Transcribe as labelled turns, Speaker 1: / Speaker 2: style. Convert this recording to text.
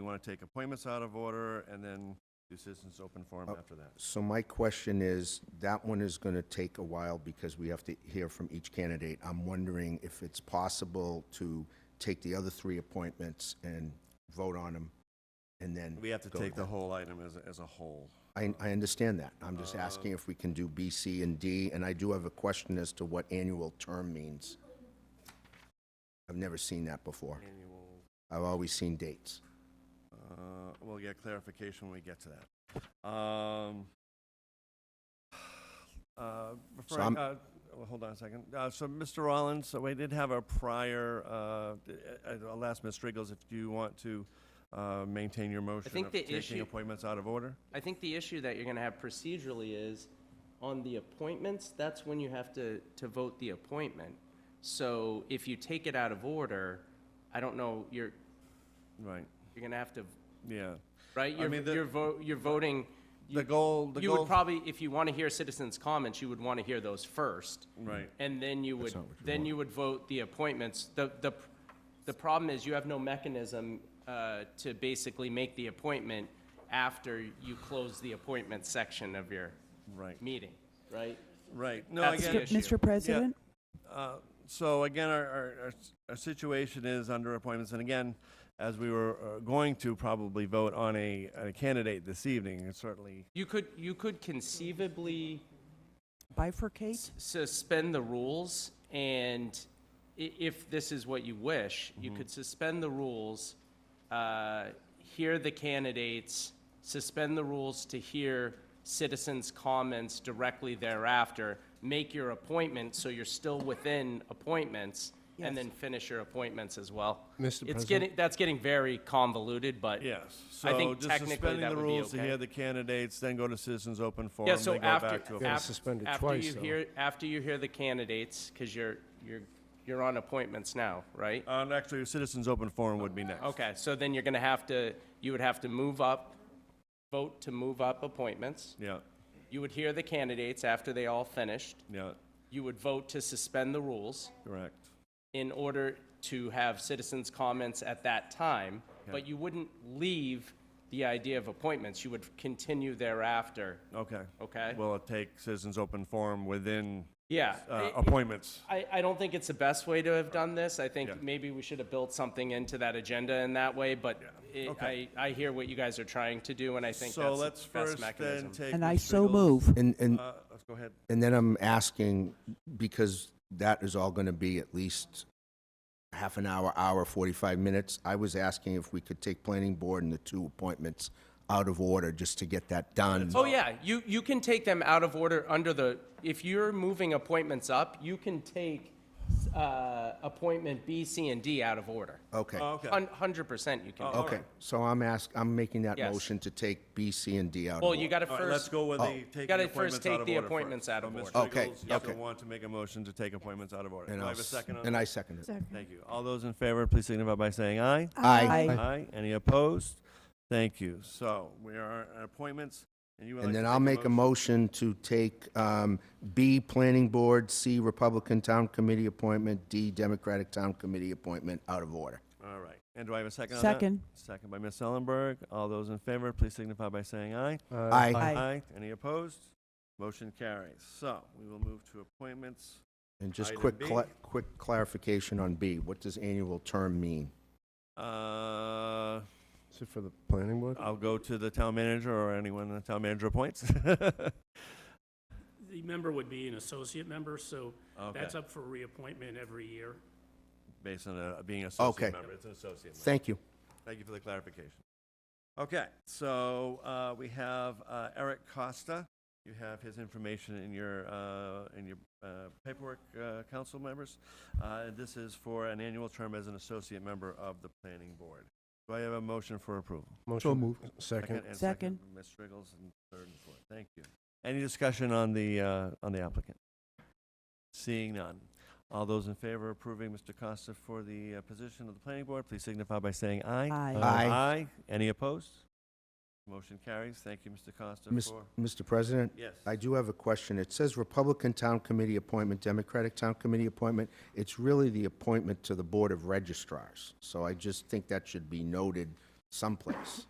Speaker 1: want to take appointments out of order and then do citizens' open forum
Speaker 2: Oh.
Speaker 1: after that.
Speaker 2: So my question is, that one is going to take a while because we have to hear from each candidate. I'm wondering if it's possible to take the other three appointments and vote on them, and then...
Speaker 1: We have to
Speaker 2: go
Speaker 1: take the
Speaker 2: that.
Speaker 1: whole item as, a- as a whole.
Speaker 2: I, I understand that. I'm
Speaker 1: Uh,
Speaker 2: just asking if we can do B, C, and D, and I do have a question as to what annual term means. I've never seen that before.
Speaker 1: Annual,
Speaker 2: I've always seen dates.
Speaker 1: uh, we'll get clarification when we get to that. Um, uh, Frank,
Speaker 2: I'm-
Speaker 1: uh, well, hold on a second. Uh, so Mr. Rollins, so we did have a prior, uh, d- uh, I'll ask Ms. Strigels if you want to, uh, maintain your motion
Speaker 3: think
Speaker 1: of
Speaker 3: the
Speaker 1: taking
Speaker 3: issue-
Speaker 1: appointments out of order?
Speaker 3: I think the issue that you're gonna have procedurally is, on the appointments, that's when you have to, to vote the appointment. So if you take it out of order, I don't know, you're,
Speaker 1: Right,
Speaker 3: you're gonna have to,
Speaker 1: yeah.
Speaker 3: right?
Speaker 1: I
Speaker 3: You're,
Speaker 1: mean, the-
Speaker 3: you're vo, you're voting. you-
Speaker 1: The goal, the
Speaker 3: You would
Speaker 1: goal,
Speaker 3: probably, if you wanna hear citizens' comments, you would wanna hear those first.
Speaker 1: right.
Speaker 3: And then you would,
Speaker 2: not what you
Speaker 3: then
Speaker 2: want.
Speaker 3: you would vote the appointments. The, the, the problem is you have no mechanism uh, to basically make the appointment after you close the appointment section of your
Speaker 1: Right,
Speaker 3: meeting, right?
Speaker 1: right. No, I
Speaker 3: That's
Speaker 1: get
Speaker 3: the
Speaker 1: it.
Speaker 3: issue.
Speaker 4: Mr. President?
Speaker 1: Uh, So again, our, our, our s- our situation is under appointments, and again, as we were uh, going to probably vote on a, on a candidate this evening, and certainly,
Speaker 3: You could, you could conceivably
Speaker 4: Bifurcate?
Speaker 3: suspend the rules and i- if this is what you wish, you
Speaker 1: Mm-hmm.
Speaker 3: could suspend the rules, uh, hear the candidates, suspend the rules to hear citizens' comments directly thereafter, make your appointment so you're still within appointments, and then finish your appointments as well.
Speaker 5: Mr.
Speaker 3: It's
Speaker 5: President?
Speaker 3: getting, that's getting very convoluted, but
Speaker 1: yes.
Speaker 3: I
Speaker 1: So
Speaker 3: think
Speaker 1: just
Speaker 3: technically
Speaker 1: suspending
Speaker 3: that
Speaker 1: the
Speaker 3: would be
Speaker 1: rules to
Speaker 3: okay.
Speaker 1: hear the candidates, then go to citizens' open forum,
Speaker 3: Yeah, so
Speaker 1: then go
Speaker 3: after,
Speaker 1: back to. a-
Speaker 3: after,
Speaker 5: Yeah, suspended
Speaker 3: after
Speaker 5: twice,
Speaker 3: you
Speaker 5: though.
Speaker 3: hear after you hear the candidates, because you're you're you're on appointments now, right?
Speaker 1: Uh, and actually, citizens' open forum would be next.
Speaker 3: Okay, so then you're gonna have to you would have to move up, vote to move up appointments.
Speaker 1: Yeah,
Speaker 3: You would hear the candidates after they all finished.
Speaker 1: yeah,
Speaker 3: You would vote to suspend the rules
Speaker 1: correct.
Speaker 3: in order to have citizens' comments at that time, but
Speaker 1: Yeah.
Speaker 3: you wouldn't leave the idea of appointments. You would continue thereafter.
Speaker 1: Okay.
Speaker 3: Okay.
Speaker 1: Well, it take citizens' open forum within,
Speaker 3: Yeah.
Speaker 1: uh,
Speaker 3: it-
Speaker 1: appointments.
Speaker 3: I, I don't think it's the best way to have done this. I
Speaker 1: Yeah.
Speaker 3: think maybe we should have built something into that agenda in that way, but it- I,
Speaker 1: Okay.
Speaker 3: I hear what you guys are trying to do, and I think
Speaker 1: So let's
Speaker 3: that's the best
Speaker 1: first then
Speaker 3: mechanism.
Speaker 1: take.
Speaker 4: And I
Speaker 1: Ms.
Speaker 4: so
Speaker 1: Strigels.
Speaker 4: move.
Speaker 2: And, and
Speaker 1: Uh, let's go ahead.
Speaker 2: And then I'm asking, because that is all going to be at least half an hour, hour, 45 minutes, I was asking if we could take planning board and the two appointments out of order, just to get that done.
Speaker 3: Oh, yeah, you, you can take them out of order under the, if you're moving appointments up, you can take, uh, appointment B, C, and D out of order.
Speaker 2: Okay,
Speaker 1: Okay. Oh,
Speaker 3: Hun- Hundred percent you can. do
Speaker 2: okay, so I'm ask, I'm making that
Speaker 3: Yes.
Speaker 2: motion to take B, C, and D out of
Speaker 3: Well,
Speaker 2: order.
Speaker 3: you gotta
Speaker 1: All right, let's
Speaker 3: first,
Speaker 1: go with the taking
Speaker 3: Gotta
Speaker 1: appointments
Speaker 3: first
Speaker 1: out
Speaker 3: take
Speaker 1: of
Speaker 3: the
Speaker 1: order
Speaker 3: appointments out of
Speaker 1: So, Ms.
Speaker 3: order.
Speaker 2: Oh. Okay,
Speaker 1: Nichols, you're
Speaker 2: okay.
Speaker 1: gonna want to make a motion to take appointments out of order.
Speaker 2: And
Speaker 1: Do I
Speaker 2: I'll
Speaker 1: have a
Speaker 2: s-
Speaker 1: second on
Speaker 2: And
Speaker 1: that?
Speaker 2: I second it.
Speaker 1: Thank you. All those in favor, please signify by saying aye.
Speaker 2: Aye.
Speaker 1: Aye. Any opposed? Thank you. So we are at appointments, and you would like
Speaker 2: And
Speaker 1: to
Speaker 2: then I'll make a motion to take um, B, planning board, C, Republican town committee appointment, D, Democratic town committee appointment, out of order.
Speaker 1: All right. And do I have a second on that?
Speaker 4: Second.
Speaker 1: Second by Ms. Ellenberg. All those in favor, please signify by saying aye.
Speaker 5: Uh,
Speaker 2: Aye.
Speaker 4: Aye.
Speaker 1: Any opposed? Motion carries. So we will move to appointments.
Speaker 2: And just
Speaker 1: Item
Speaker 2: quick,
Speaker 1: B.
Speaker 2: cla- quick clarification on B, what does annual term mean?
Speaker 1: Uh,
Speaker 5: Is it for the planning board?
Speaker 1: I'll go to the town manager or anyone the town manager appoints.
Speaker 6: The member would be an associate member, so
Speaker 1: Okay.
Speaker 6: that's up for reappointment every year.
Speaker 1: based on uh, being an associate
Speaker 2: Okay.
Speaker 1: member. It's an associate member.
Speaker 2: Thank you.
Speaker 1: Thank you for the clarification. Okay, so uh, we have uh, Eric Costa. You have his information in your, uh, in your uh, paperwork, uh, council members. Uh, and This is for an annual term as an associate member of the planning board. Do I have a motion for approval?
Speaker 5: Motion. Second.
Speaker 1: and Ms. Striggles and third and fourth. Thank you. Any discussion on the, uh, on the applicant? Seeing none. All those in favor of approving Mr. Costa for the uh, position of the planning board, please signify by saying aye.
Speaker 4: Aye.
Speaker 2: Aye.
Speaker 1: Any opposed? Motion carries. Thank you, Mr. Costa,
Speaker 2: Mis-
Speaker 1: for,
Speaker 2: Mr. President,
Speaker 1: yes.
Speaker 2: I do have a question. It says Republican Town Committee appointment, Democratic Town Committee appointment. It's really the appointment to the Board of registrars. So I just think that should be noted someplace.